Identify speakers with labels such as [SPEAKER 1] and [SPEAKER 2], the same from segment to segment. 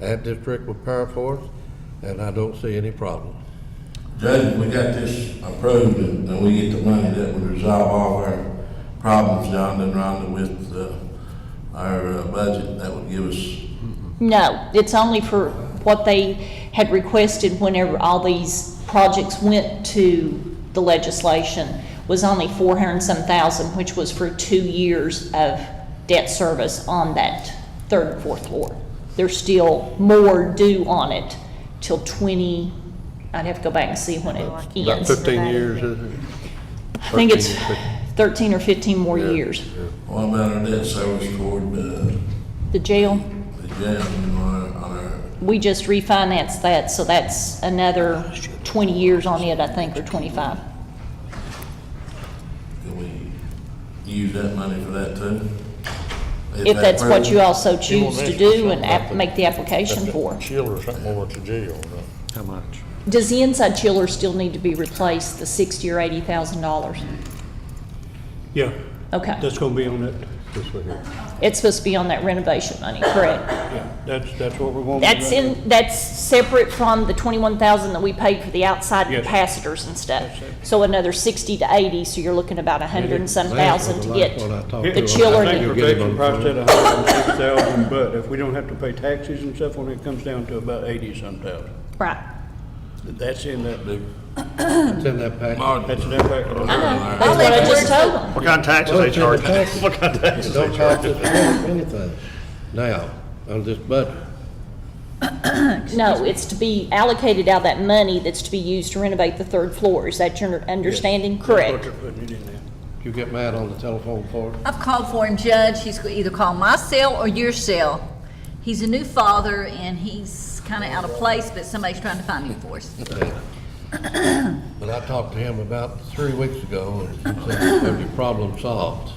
[SPEAKER 1] That district will power for us, and I don't see any problems.
[SPEAKER 2] Judge, if we got this approved and and we get the money, that would resolve all of our problems down and around with uh, our uh, budget. That would give us,
[SPEAKER 3] No, it's only for what they had requested whenever all these projects went to the legislation, was only four hundred and some thousand, which was for two years of debt service on that third and fourth floor. There's still more due on it till twenty, I'd have to go back and see when it
[SPEAKER 1] About
[SPEAKER 3] ends.
[SPEAKER 1] fifteen years, isn't it?
[SPEAKER 3] I think it's
[SPEAKER 1] 13,
[SPEAKER 3] thirteen or fifteen more
[SPEAKER 1] Yeah.
[SPEAKER 3] years.
[SPEAKER 2] what about our debt service toward uh,
[SPEAKER 3] The jail,
[SPEAKER 2] the jail and on our- on our,
[SPEAKER 3] we just refinanced that, so that's another twenty years on it, I think, or twenty-five.
[SPEAKER 2] can we use that money for that too?
[SPEAKER 3] If that's what you also choose
[SPEAKER 4] won't
[SPEAKER 3] to
[SPEAKER 4] ask you
[SPEAKER 3] do and
[SPEAKER 4] something
[SPEAKER 3] app-
[SPEAKER 4] about the-
[SPEAKER 3] make the application
[SPEAKER 4] That's
[SPEAKER 3] for.
[SPEAKER 4] that Chill or something over at the jail, right?
[SPEAKER 5] How much?
[SPEAKER 3] Does the inside chiller still need to be replaced, the sixty or eighty thousand dollars?
[SPEAKER 6] Yeah,
[SPEAKER 3] Okay,
[SPEAKER 6] that's gonna be on it.
[SPEAKER 1] This one here.
[SPEAKER 3] it's supposed to be on that renovation money, correct?
[SPEAKER 6] Yeah, that's, that's what we're going to do.
[SPEAKER 3] That's in, that's separate from the twenty-one thousand that we paid for the outside
[SPEAKER 6] Yes.
[SPEAKER 3] capacitors and stuff. So another sixty to eighty, so you're looking about a hundred and some thousand to get.
[SPEAKER 6] It-
[SPEAKER 3] chiller
[SPEAKER 6] I
[SPEAKER 3] that-
[SPEAKER 6] think
[SPEAKER 3] You'll
[SPEAKER 6] protection priced at a hundred and six thousand, but if we don't have to pay taxes and stuff, when it comes down to about eighty-some thousand.
[SPEAKER 3] Right.
[SPEAKER 6] That's in that, big-
[SPEAKER 1] It's in that package.
[SPEAKER 6] that's in that package.
[SPEAKER 3] That's what I just told them.
[SPEAKER 7] What kind of taxes
[SPEAKER 1] Well,
[SPEAKER 7] they
[SPEAKER 1] it's in the
[SPEAKER 7] charge?
[SPEAKER 1] package.
[SPEAKER 7] What kind of taxes
[SPEAKER 1] It
[SPEAKER 7] they
[SPEAKER 1] Don't cost
[SPEAKER 7] charge?
[SPEAKER 1] us anything now, on this budget.
[SPEAKER 3] No, it's to be allocated out of that money that's to be used to renovate the third floor. Is that your understanding?
[SPEAKER 6] What
[SPEAKER 3] Correct.
[SPEAKER 6] they're putting it in there.
[SPEAKER 1] You get mad on the telephone for it?
[SPEAKER 8] I've called for him, Judge. He's gonna either call my cell or your cell. He's a new father and he's kind of out of place, but somebody's trying to find him for us.
[SPEAKER 1] But I talked to him about three weeks ago, and he said, "Have your problem solved?"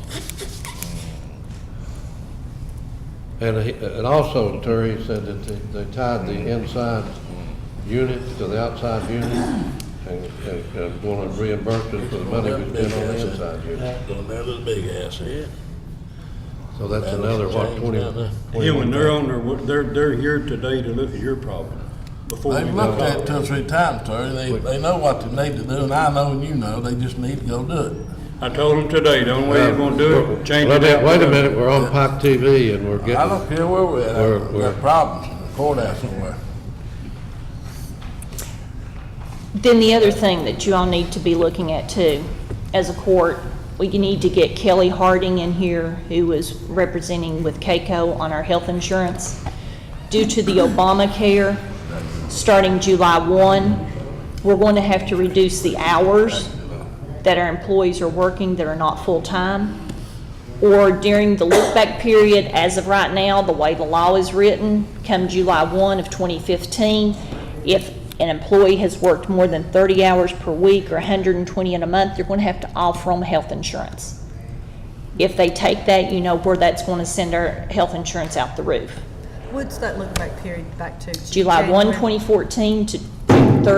[SPEAKER 1] And he, and also, Terry said that they they tied the inside unit to the outside unit, and, and- and gonna reimburse us for the money we spent on the inside unit.
[SPEAKER 2] Gonna bear this big ass here.
[SPEAKER 1] So that's another, what, twenty?
[SPEAKER 6] Yeah, when they're on their, wa- they're, they're here today to look at your problem before we
[SPEAKER 2] They've
[SPEAKER 6] go
[SPEAKER 2] looked at
[SPEAKER 6] talk.
[SPEAKER 2] it two or three times, Terry. They, they know what they need to do, and I know and you know, they just need to go do it.
[SPEAKER 6] I told them today, the only way you're gonna do it, change
[SPEAKER 1] Wait a
[SPEAKER 6] it
[SPEAKER 1] minute,
[SPEAKER 6] out.
[SPEAKER 1] Wait a minute, we're on Pike TV and we're
[SPEAKER 2] I
[SPEAKER 1] getting,
[SPEAKER 2] don't care where we're
[SPEAKER 1] Where-
[SPEAKER 2] at, we
[SPEAKER 1] where-
[SPEAKER 2] got problems in the courthouse somewhere.
[SPEAKER 3] Then the other thing that you all need to be looking at too, as a court, we need to get Kelly Harding in here, who was representing with CAECO on our health insurance. Due to the Obamacare, starting July 1, we're going to have to reduce the hours that our employees are working that are not full-time. or during the look-back period, as of right now, the way the law is written, come July 1 of 2015, if an employee has worked more than 30 hours per week or 120 in a month, you're going to have to offer them health insurance. If they take that, you know where that's going to send our health insurance out the roof.
[SPEAKER 9] What's that look back period back to?
[SPEAKER 3] July 1,
[SPEAKER 9] January?
[SPEAKER 3] 2014 to June 30th,
[SPEAKER 9] So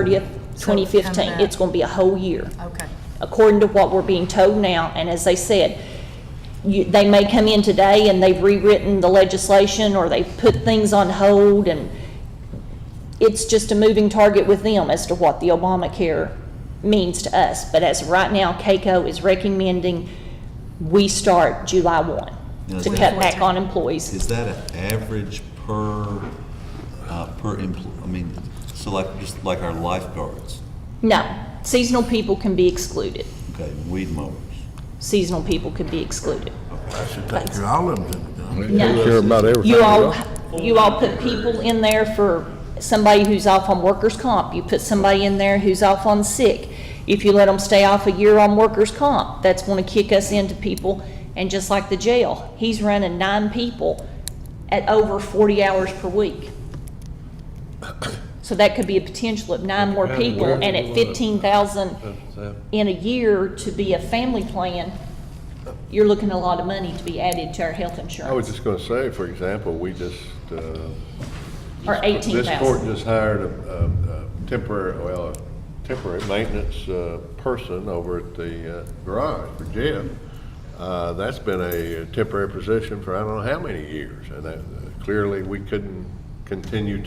[SPEAKER 9] it's coming
[SPEAKER 3] 2015,
[SPEAKER 9] up.
[SPEAKER 3] it's going to be a whole year
[SPEAKER 9] Okay.
[SPEAKER 3] according to what we're being told now, and as they said, you, they may come in today and they've rewritten the legislation, or they've put things on hold, and it's just a moving target with them as to what the Obamacare means to us. But as of right now, CAECO is recommending we start July one to cut back on employees.
[SPEAKER 5] Is that an average per, uh, per empl, I mean, so like, just like our lifeguards,
[SPEAKER 3] No, seasonal people can be excluded.
[SPEAKER 5] okay, weed mowers?
[SPEAKER 3] Seasonal people can be excluded.
[SPEAKER 2] I should take care of all of them.
[SPEAKER 3] No.
[SPEAKER 7] Care about everything.
[SPEAKER 3] You all, you all put people in there for somebody who's off on workers' comp. You put somebody in there who's off on sick. If you let them stay off a year on workers' comp, that's gonna kick us into people. And just like the jail, he's running nine people at over forty hours per week. So that could be a potential of nine more people and at fifteen thousand in a year to be a family plan, you're looking at a lot of money to be added to our health
[SPEAKER 7] I
[SPEAKER 3] insurance,
[SPEAKER 7] was just gonna say, for example, we just, uh,
[SPEAKER 3] or eighteen
[SPEAKER 7] This court
[SPEAKER 3] thousand.
[SPEAKER 7] just hired a, a- a temporary, well, a temporary maintenance, uh, person over at the uh, garage for Jim. Uh, that's been a temporary position for I don't know how many years, and that, clearly, uh, we couldn't
[SPEAKER 1] continue